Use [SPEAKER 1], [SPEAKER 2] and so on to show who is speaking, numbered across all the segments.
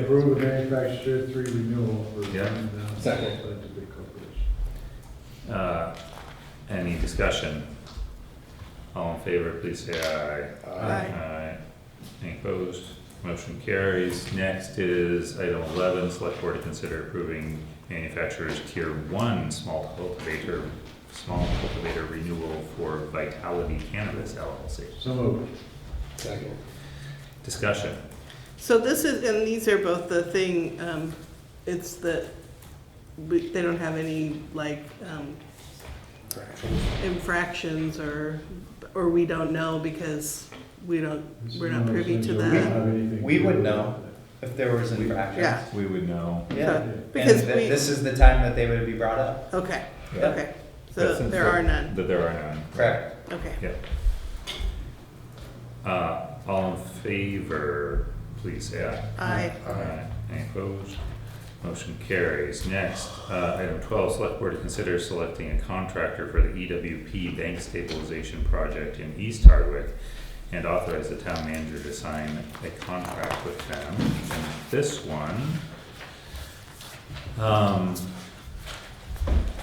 [SPEAKER 1] Approve the manufacturer three renewal for.
[SPEAKER 2] Yeah.
[SPEAKER 1] Rhinedown
[SPEAKER 3] Second.
[SPEAKER 1] Scientific Corporation.
[SPEAKER 2] Uh, Any discussion? All in favor, please say aye. Aye. Any opposed? Motion carries. Next is item eleven, select board to consider approving manufacturer's tier one small cultivator, small cultivator renewal for Vitality Cannabis LLC.
[SPEAKER 1] So moved.
[SPEAKER 3] Second.
[SPEAKER 2] Discussion.
[SPEAKER 4] So this is, and these are both the thing, um, it's the, we- they don't have any like, um, infractions or, or we don't know because we don't, we're not privy to
[SPEAKER 1] We don't
[SPEAKER 4] that.
[SPEAKER 1] have anything to
[SPEAKER 5] We
[SPEAKER 1] do
[SPEAKER 5] would
[SPEAKER 1] with
[SPEAKER 5] know. if there was infractions.
[SPEAKER 4] Yeah.
[SPEAKER 2] We would know.
[SPEAKER 4] Uh,
[SPEAKER 5] Yeah.
[SPEAKER 1] that.
[SPEAKER 5] And
[SPEAKER 4] Because
[SPEAKER 5] thi-
[SPEAKER 4] we-
[SPEAKER 5] this is the time that they would be brought up,
[SPEAKER 4] Okay,
[SPEAKER 2] Yeah.
[SPEAKER 4] okay. So
[SPEAKER 2] But since
[SPEAKER 4] there are none,
[SPEAKER 2] That there are none.
[SPEAKER 5] correct?
[SPEAKER 4] okay.
[SPEAKER 2] Uh, all in favor, please say aye.
[SPEAKER 4] Aye.
[SPEAKER 2] Aye. Any opposed? Motion carries. Next, uh, item twelve, select board to consider selecting a contractor for the EWP bank stabilization project in East Hardwick and authorize the town manager to sign a contract with them. And this one, um,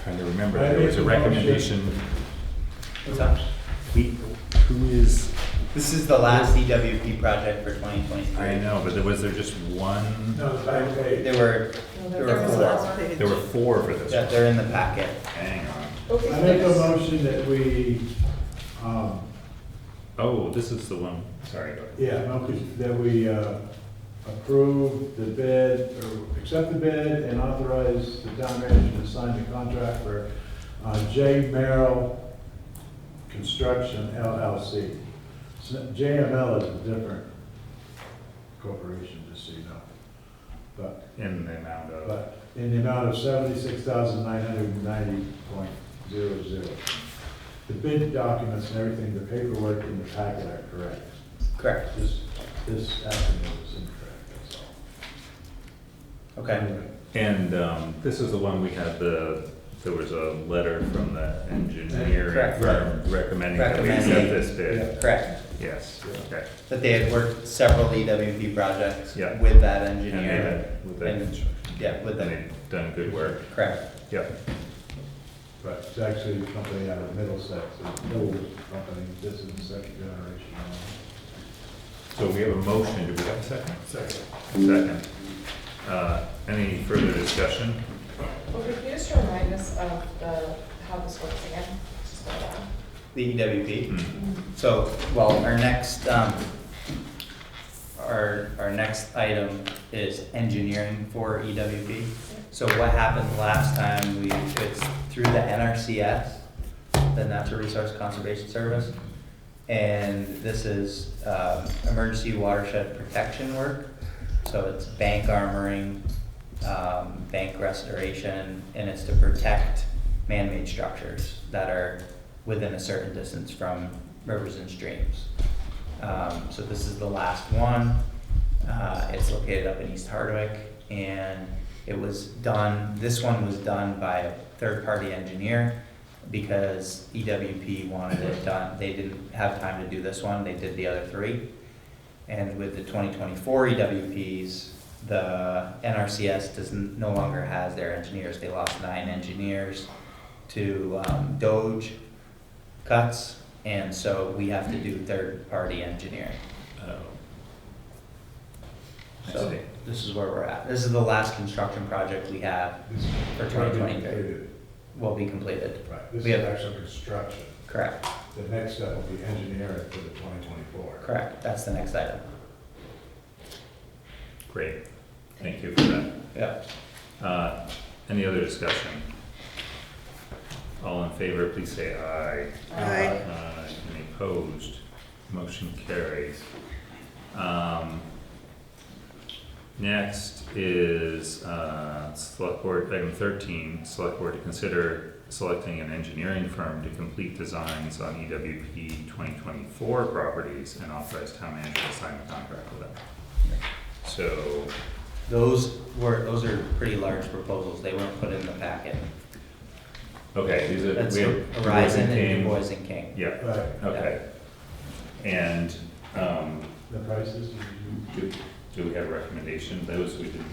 [SPEAKER 2] trying to remember,
[SPEAKER 1] I
[SPEAKER 2] there was a
[SPEAKER 1] make a motion.
[SPEAKER 2] recommendation,
[SPEAKER 5] What's that?
[SPEAKER 2] he, who is,
[SPEAKER 5] This is the last EWP project for twenty twenty-three.
[SPEAKER 2] I know, but there was there just one,
[SPEAKER 1] No, it's back page.
[SPEAKER 5] There were, there
[SPEAKER 4] There
[SPEAKER 5] were
[SPEAKER 4] was
[SPEAKER 5] four,
[SPEAKER 4] last page.
[SPEAKER 2] there were four for this
[SPEAKER 5] that
[SPEAKER 2] one.
[SPEAKER 5] they're in the packet.
[SPEAKER 2] Hang on.
[SPEAKER 1] I make a motion that we, um,
[SPEAKER 2] Oh, this is the one, sorry, go ahead.
[SPEAKER 1] yeah, no, that we, uh, approve the bid, or accept the bid and authorize the town manager to sign the contract for, uh, J Merrill Construction LLC. So JML is a different corporation, just so you know. But
[SPEAKER 2] in the amount of,
[SPEAKER 1] but in the amount of seventy-six thousand nine hundred and ninety point zero zero. The bid documents and everything, the paperwork in the packet are correct.
[SPEAKER 5] Correct,
[SPEAKER 1] This, this afternoon is incorrect, that's all.
[SPEAKER 5] okay.
[SPEAKER 1] Anyway,
[SPEAKER 2] and, um, this is the one we had the, there was a letter from the engineer
[SPEAKER 5] Correct.
[SPEAKER 2] firm recommending that we accept
[SPEAKER 5] Recommending.
[SPEAKER 2] this bid.
[SPEAKER 5] Correct,
[SPEAKER 2] Yes, okay.
[SPEAKER 5] that they had worked several EWP projects
[SPEAKER 2] Yeah.
[SPEAKER 5] with that
[SPEAKER 2] And they
[SPEAKER 5] engineer.
[SPEAKER 2] had, with that
[SPEAKER 5] And-
[SPEAKER 2] construction.
[SPEAKER 5] yeah,
[SPEAKER 2] And
[SPEAKER 5] with that.
[SPEAKER 2] they've done good work,
[SPEAKER 5] Correct,
[SPEAKER 2] yep.
[SPEAKER 1] But it's actually a company out of Middlesex, an old company, this is the second generation.
[SPEAKER 2] So we have a motion, do we have a second?
[SPEAKER 1] Second.
[SPEAKER 2] Second. Uh, any further discussion?
[SPEAKER 6] Well, could you just remind us of the, how this works again? Just go down.
[SPEAKER 5] the EWP.
[SPEAKER 2] Hmm.
[SPEAKER 5] So, well, our next, um, our, our next item is engineering for EWP. So what happened last time, we, it's through the NRCS, the Natural Resource Conservation Service. And this is, um, emergency watershed protection work. So it's bank armoring, um, bank restoration, and it's to protect man-made structures that are within a certain distance from rivers and streams. Um, so this is the last one. Uh, it's located up in East Hardwick and it was done, this one was done by a third-party engineer because EWP wanted it done. They didn't have time to do this one, they did the other three. And with the twenty twenty-four EWPs, the NRCS does, n- no longer has their engineers. They lost nine engineers to um, Doge cuts, and so we have to do third-party engineering.
[SPEAKER 2] Oh. I
[SPEAKER 5] So
[SPEAKER 2] see.
[SPEAKER 5] This is where we're at. This is the last construction project we have
[SPEAKER 1] This is
[SPEAKER 5] for twenty twenty-three, will be completed,
[SPEAKER 1] Right, this
[SPEAKER 5] We
[SPEAKER 1] is
[SPEAKER 5] have-
[SPEAKER 1] actual construction.
[SPEAKER 5] correct,
[SPEAKER 1] The next step will be engineering for the twenty twenty-four.
[SPEAKER 5] correct, that's the next item.
[SPEAKER 2] Great, thank you for that.
[SPEAKER 5] Yep,
[SPEAKER 2] Uh, Any other discussion? All in favor, please say aye.
[SPEAKER 4] Aye.
[SPEAKER 2] Aye. Any opposed? Motion carries. Um, Next is uh, Select Board, item 13, Select Board to consider selecting an engineering firm to complete designs on E EWP 2024 properties and authorize town manager to sign the contract with them. So,
[SPEAKER 5] those were, those are pretty large proposals, they weren't put in the packet.
[SPEAKER 2] okay, these are.
[SPEAKER 5] That's
[SPEAKER 2] we have-
[SPEAKER 5] Horizon and
[SPEAKER 2] King.
[SPEAKER 5] Du Bois and King.
[SPEAKER 2] Yeah,
[SPEAKER 1] Right,
[SPEAKER 2] Okay. And, um,
[SPEAKER 1] the prices, did you?
[SPEAKER 2] do, Do we have recommendations? Those we didn't